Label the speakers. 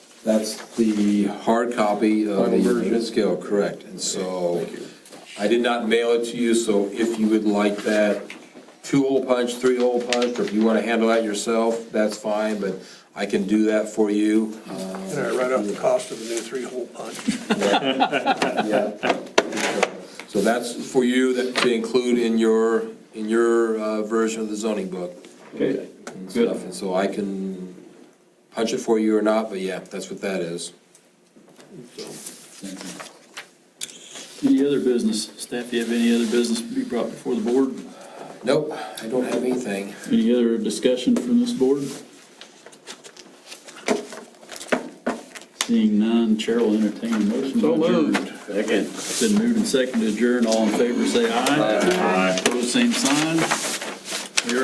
Speaker 1: That's the hard copy of
Speaker 2: Final
Speaker 1: the
Speaker 2: version.
Speaker 1: unit scale, correct. And so
Speaker 2: Thank you.
Speaker 1: I did not mail it to you, so if you would like that two-hole punch, three-hole punch, or if you want to handle that yourself, that's fine, but I can do that for you. Um,
Speaker 3: And I write off the cost of the new three-hole punch.
Speaker 1: So that's for you that to include in your, in your uh, version of the zoning book
Speaker 2: Okay,
Speaker 1: and stuff.
Speaker 2: good.
Speaker 1: And so I can punch it for you or not, but yeah, that's what that is.
Speaker 4: Any other business? Staff, do you have any other business to be brought before the board?
Speaker 1: Nope, I don't have anything.
Speaker 4: Any other discussion from this board? Seeing none, Chair will entertain a motion to
Speaker 2: So
Speaker 4: adjourn.
Speaker 2: moved.
Speaker 4: It's been moved and seconded to adjourn. All in favor, say aye. Aye. Pose same sign.